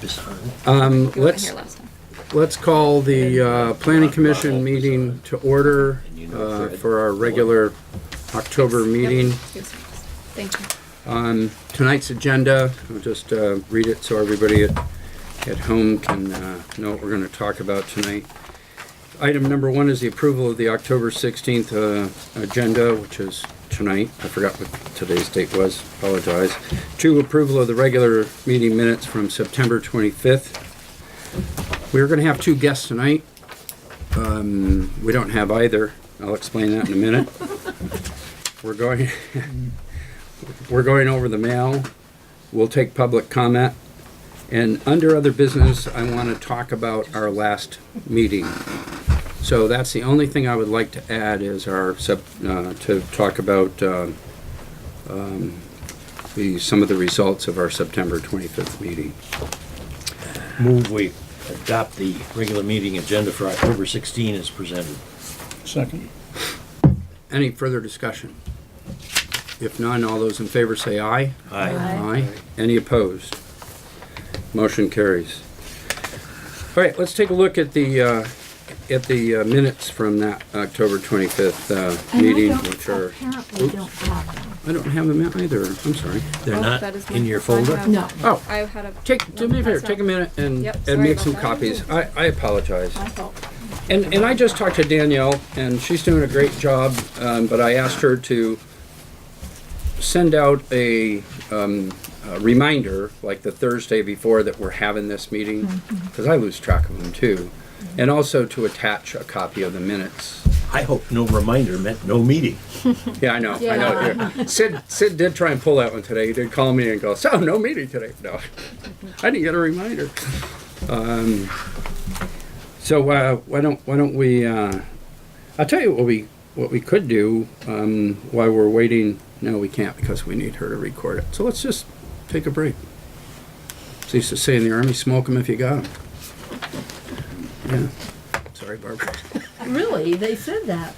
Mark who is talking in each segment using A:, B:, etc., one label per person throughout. A: This on?
B: Um,
C: You weren't
B: let's,
C: here last time.
B: let's call the, uh, planning commission meeting to order, uh, for our regular October meeting.
C: Yep. Yes, yes. Thank you.
B: On tonight's agenda, I'll just, uh, read it so everybody at, at home can, uh, know what we're gonna talk about tonight. Item number one is the approval of the October sixteenth, uh, agenda, which is tonight. I forgot what today's date was, apologize. Two, approval of the regular meeting minutes from September twenty-fifth. We're gonna have two guests tonight. Um, we don't have either. I'll explain that in a minute. We're going, we're going over the mail. We'll take public comment. And under other business, I wanna talk about our last meeting. So that's the only thing I would like to add is our, sep- uh, to talk about, um, um, the, some of the results of our September twenty-fifth meeting.
A: Move we adopt the regular meeting agenda for October 16 as presented.
D: Second.
B: Any further discussion? If none, all those in favor say aye.
A: Aye.
B: Aye. Any opposed? Motion carries. All right, let's take a look at the, uh, at the uh, minutes from that October 25th uh,
E: And I
B: meeting,
E: don't-
B: which are,
E: Apparently don't have them.
B: I don't have them either, I'm sorry.
A: They're
C: Oh,
A: not
C: that is
A: in
C: my-
A: your
C: mine
A: folder?
C: have-
E: No.
B: Oh,
C: I had a.
B: take, do me a favor, take a minute and,
C: Yep,
B: and
C: sorry
B: make
C: about
B: some
C: that.
B: copies. I, I apologize.
E: I thought,
B: And, and I just talked to Danielle, and she's doing a great job, um, but I asked her to send out a, um, a reminder, like the Thursday before that we're having this meeting, because I lose track of them too. And also to attach a copy of the minutes.
A: I hope no reminder meant no meeting.
B: Yeah, I know, I know. yeah. Sid, Sid did try and pull that one today. He did call me and go, so, no meeting today. No, I didn't get a reminder. Um, so, uh, why don't, why don't we, uh, I'll tell you what we, what we could do, um, while we're waiting. No, we can't because we need her to record it. So let's just take a break. As they used to say in the army, smoke 'em if you got 'em. Yeah. Sorry, Barbara.
E: really? They said that?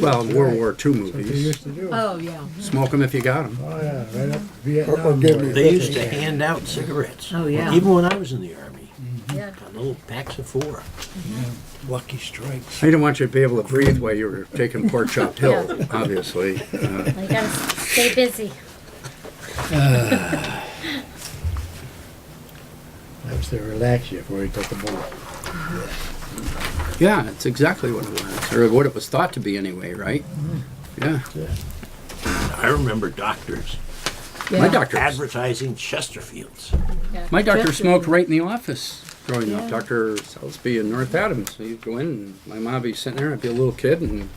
B: Well, World War II movies,
D: to do.
E: Oh, yeah.
B: smoke 'em if you got 'em.
D: Oh, yeah, right up
F: Or
D: Vietnam.
F: give me-
A: They used to hand out cigarettes.
E: Oh, yeah.
A: Even when I was in the Army,
E: Yeah.
A: got little packs of four.
D: Lucky strikes.
B: I didn't want you to be able to breathe while you were taking pork chopped hill,
G: Yeah.
B: obviously. Uh,
G: Well, you gotta stay busy.
D: Helps to relax you before you take a bullet.
B: yeah, it's exactly what it was, or what it was thought to be anyway, right? Yeah,
A: I remember doctors
B: my doctor,
A: advertising Chesterfields.
B: my doctor smoked right in the office growing up. Dr. Salisbury in North Adams. So you'd go in, and my mom would be sitting there. I'd be a little kid, and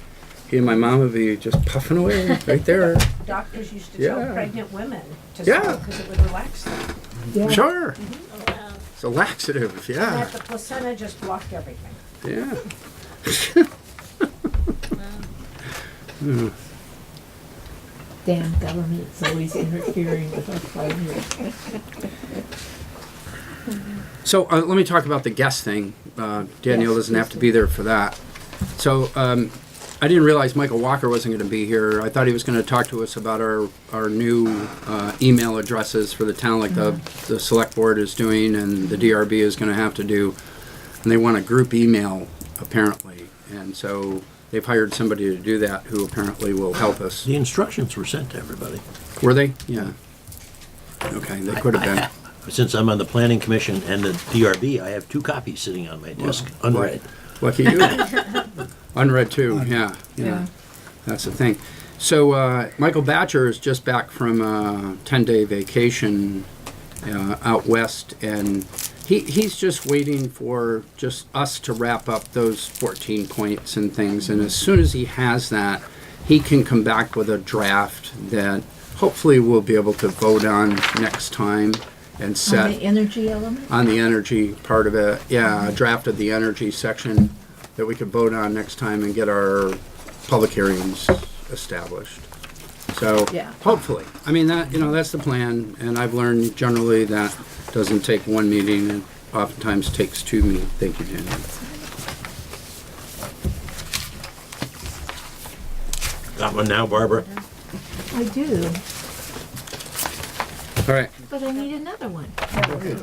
B: he and my mom would be just puffing away right there.
H: Doctors used to tell
B: Yeah.
H: pregnant women to
B: Yeah.
H: smoke because it would relax them.
B: Sure, it's a laxative. Yeah,
H: That the placenta just blocked everything.
B: yeah.
E: Damn government's always interfering with our privacy.
B: So uh, let me talk about the guest thing. Uh, Danielle doesn't have to be there for that. So um, I didn't realize Michael Walker wasn't going to be here. I thought he was going to talk to us about our our new uh, email addresses for the town, like the the select board is doing and the DRB is going to have to do. And they want a group email apparently, and so they've hired somebody to do that who apparently will help us.
A: The instructions were sent to everybody.
B: Were they? Yeah. Okay, they could have been.
A: Since I'm on the Planning Commission and the DRB, I have two copies sitting on my desk, unread.
B: Lucky you. Unread too, yeah, yeah.
E: Yeah.
B: That's the thing. So, uh, Michael Batcher is just back from a ten-day vacation, uh, out west, and he, he's just waiting for just us to wrap up those fourteen points and things, and as soon as he has that, he can come back with a draft that hopefully we'll be able to vote on next time and set
E: On the energy element?
B: on the energy part of it, yeah, I drafted the energy section that we could vote on next time and get our public hearings established. So,
E: Yeah.
B: hopefully, I mean, that, you know, that's the plan, and I've learned generally that doesn't take one meeting, and oftentimes takes two meetings. Thank you, Daniel.
A: Got one now, Barbara?
E: I do,
B: All right,
E: but I need another one.